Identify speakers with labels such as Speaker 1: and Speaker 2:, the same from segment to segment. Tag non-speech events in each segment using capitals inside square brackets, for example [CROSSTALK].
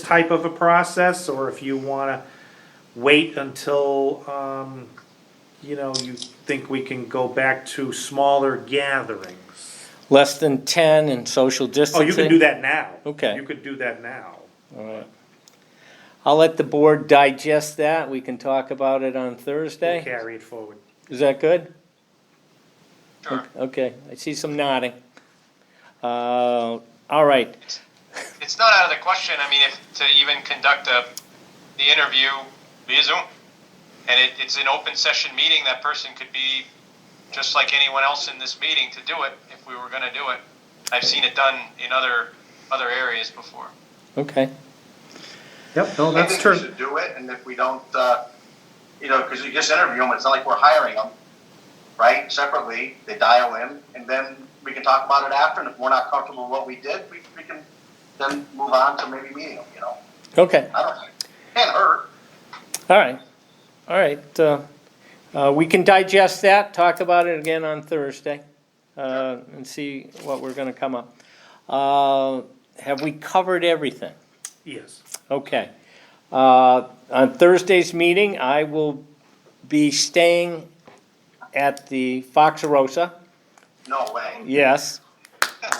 Speaker 1: type of a process, or if you wanna wait until, um, you know, you think we can go back to smaller gatherings.
Speaker 2: Less than ten and social
Speaker 1: Oh,
Speaker 2: distancing?
Speaker 1: you can do that now.
Speaker 2: Okay.
Speaker 1: You could do that now.
Speaker 2: All right. I'll let the board digest that. We can talk about it on
Speaker 1: We'll
Speaker 2: Thursday.
Speaker 1: carry it forward.
Speaker 2: Is that good?
Speaker 3: Sure.
Speaker 2: Okay, I see some nodding. Uh, all right,
Speaker 3: It's not out of the question, I mean, if, to even conduct a, the interview via Zoom. And it, it's an open session meeting, that person could be just like anyone else in this meeting to do it, if we were gonna do it. I've seen it done in other, other areas before.
Speaker 2: okay.
Speaker 1: Yep, no,
Speaker 4: I think we should do it, and if we don't, uh, you know, because you just interview them, it's not like we're hiring them, right? Separately, they dial in, and then we can talk about it after, and if we're not comfortable with what we did, we, we can then move on to maybe meeting them, you know?
Speaker 2: Okay,
Speaker 4: I don't know, can't hurt.
Speaker 2: all right, all right. uh, uh, We can digest that, talk about it again on Thursday, uh, and see what we're gonna come up. Uh, Have we covered everything?
Speaker 1: Yes.
Speaker 2: Okay. Uh, On Thursday's meeting, I will be staying at the Fox Rosa.
Speaker 4: No way.
Speaker 2: Yes.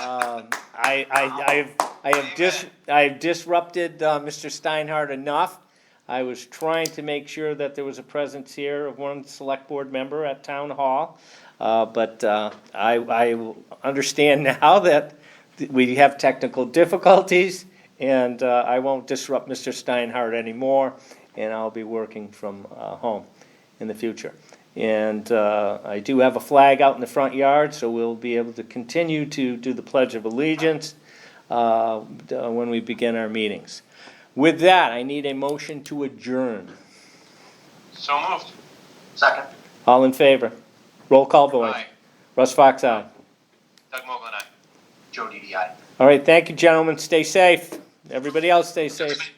Speaker 2: Um, I, I, I have, I have dis, I have disrupted uh, Mr. Steinhardt enough. I was trying to make sure that there was a presence here of one select board member at town hall. Uh, but, uh, I, I understand [LAUGHS] now that we have technical difficulties and, uh, I won't disrupt Mr. Steinhardt anymore and I'll be working from, uh, home in the future. And uh, I do have a flag out in the front yard, so we'll be able to continue to do the Pledge of Allegiance uh, d- uh, when we begin our meetings. With that, I need a motion to adjourn.
Speaker 3: So moved.
Speaker 4: Second.
Speaker 2: All in favor? Roll call, boys.
Speaker 3: Aye.
Speaker 2: Russ Fox, aye.
Speaker 3: Doug Mogul and I.
Speaker 4: Joe DDI.
Speaker 2: All right, thank you, gentlemen. Stay safe. Everybody else, stay safe.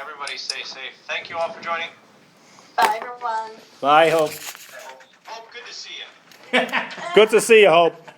Speaker 3: Everybody stay safe. Thank you all for joining.
Speaker 5: Bye, everyone.
Speaker 2: Bye, Hope.
Speaker 3: Hope, good to see you.
Speaker 2: Good to see you, Hope.